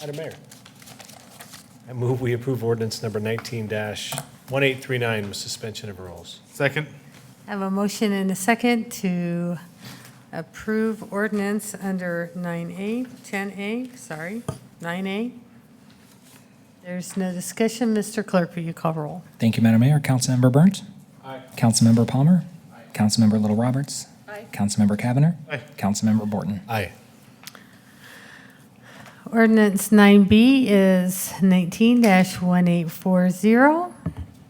Madam Mayor. I move we approve ordinance number 19-1839 with suspension of rules. Second. I have a motion and a second to approve ordinance under 9A, 10A, sorry, 9A. There's no discussion. Mr. Clerk, will you call roll? Thank you, Madam Mayor. Councilmember Burnt. Aye. Councilmember Palmer. Councilmember Little Roberts. Councilmember Cavanagh. Aye. Councilmember Borton. Aye. Ordinance 9B is 19-1840.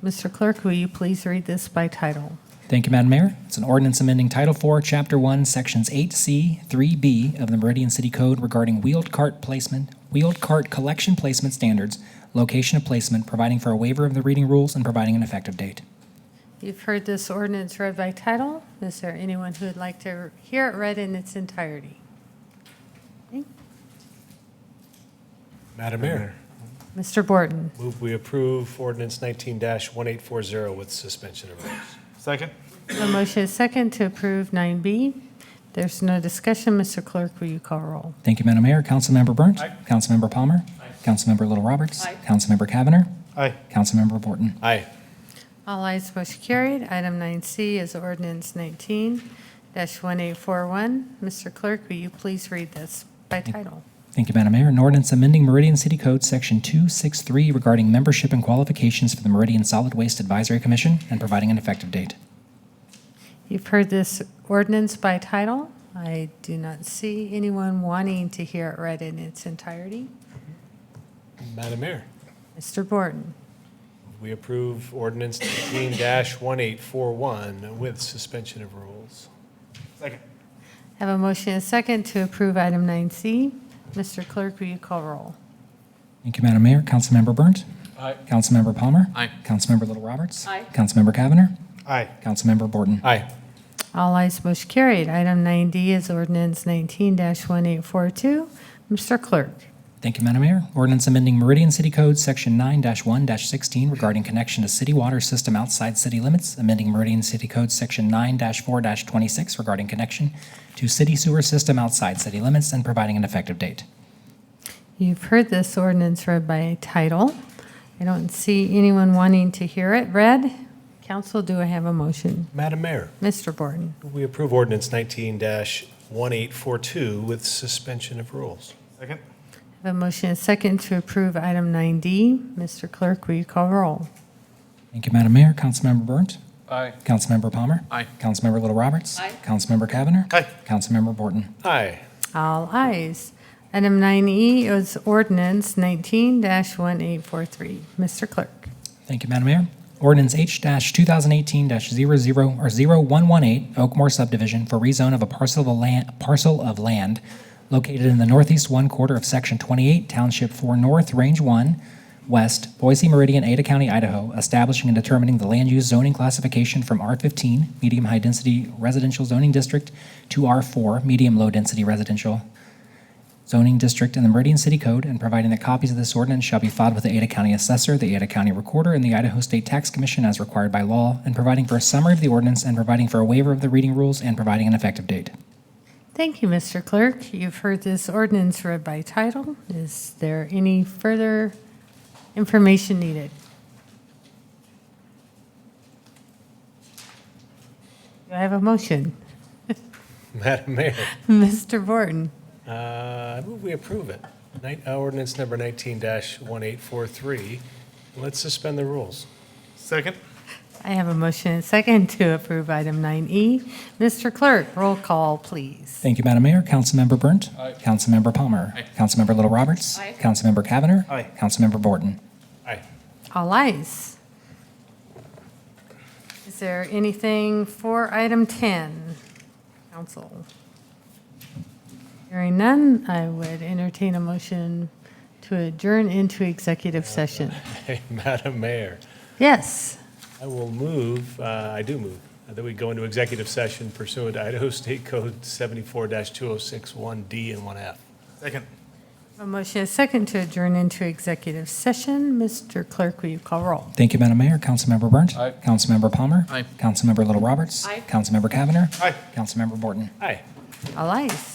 Mr. Clerk, will you please read this by title? Thank you, Madam Mayor. It's an ordinance amending Title IV, Chapter 1, Sections 8C, 3B of the Meridian City Code regarding wheeled cart placement, wheeled cart collection placement standards, location of placement, providing for a waiver of the reading rules, and providing an effective date. You've heard this ordinance read by title. Is there anyone who would like to hear it read in its entirety? Madam Mayor. Mr. Borton? Move we approve ordinance 19-1840 with suspension of rules. Second. A motion is second to approve 9B. There's no discussion. Mr. Clerk, will you call roll? Thank you, Madam Mayor. Councilmember Burnt. Aye. Councilmember Palmer. Councilmember Little Roberts. Councilmember Cavanagh. Aye. Councilmember Borton. Aye. All ayes, motion carried. Item 9C is ordinance 19-1841. Mr. Clerk, will you please read this by title? Thank you, Madam Mayor. An ordinance amending Meridian City Code, Section 263, regarding membership and qualifications for the Meridian Solid Waste Advisory Commission and providing an effective date. You've heard this ordinance by title. I do not see anyone wanting to hear it read in its entirety. Madam Mayor. Mr. Borton? We approve ordinance 19-1841 with suspension of rules. Second. Have a motion and second to approve item 9C. Mr. Clerk, will you call roll? Thank you, Madam Mayor. Councilmember Burnt. Aye. Councilmember Palmer. Aye. Councilmember Little Roberts. Aye. Councilmember Cavanagh. Aye. Councilmember Borton. Aye. All ayes, motion carried. Item 9D is ordinance 19-1842. Mr. Clerk, Thank you, Madam Mayor. Ordinance amending Meridian City Code, Section 9-1-16, regarding connection to city water system outside city limits, amending Meridian City Code, Section 9-4-26, regarding connection to city sewer system outside city limits and providing an effective date. you've heard this ordinance read by title. I don't see anyone wanting to hear it read. Council, do I have a motion? Madam Mayor. Mr. Borton, We approve ordinance 19-1842 with suspension of rules. Second. I have a motion and second to approve item 9D. Mr. Clerk, will you call roll? Thank you, Madam Mayor. Councilmember Burnt. Aye. Councilmember Palmer. Aye. Councilmember Little Roberts. Aye. Councilmember Cavanagh. Aye. Councilmember Borton. Aye. All ayes. Item 9E is ordinance 19-1843. Mr. Clerk. Thank you, Madam Mayor. Ordinance H-2018-00 or 0118 Oakmore subdivision for rezone of a parcel of a land, parcel of land located in the northeast one quarter of Section 28, Township 4 North, Range 1, West, Boise Meridian, Ada County, Idaho, establishing and determining the land use zoning classification from R-15, medium-high-density residential zoning district, to R-4, medium-low-density residential zoning district in the Meridian City Code and providing that copies of this ordinance shall be filed with the Ada County Assessor, the Ada County Recorder, and the Idaho State Tax Commission as required by law, and providing for a summary of the ordinance and providing for a waiver of the reading rules and providing an effective date. Thank you, Mr. Clerk. You've heard this ordinance read by title. Is there any further information needed? Do I have a motion? Madam Mayor. Mr. Borton, Uh, I move we approve it. Night- uh, Ordinance number 19-1843. Let's suspend the rules. Second. I have a motion and second to approve item 9E. Mr. Clerk, roll call, please. Thank you, Madam Mayor. Councilmember Burnt. Councilmember Palmer. Councilmember Little Roberts. Councilmember Cavanagh. Aye. Councilmember Borton. Aye. All ayes. Is there anything for item 10, council? Hearing none, I would entertain a motion to adjourn into executive session. Hey, Madam Mayor, Yes, I will move, uh, I do move, that we go into executive session pursuant to Idaho State Code 74-2061D and 1F. Second. a motion is second to adjourn into executive session. Mr. Clerk, will you call roll? Thank you, Madam Mayor. Councilmember Burnt. Councilmember Palmer. Councilmember Little Roberts. Councilmember Cavanagh. Aye. Councilmember Borton. Aye. All ayes.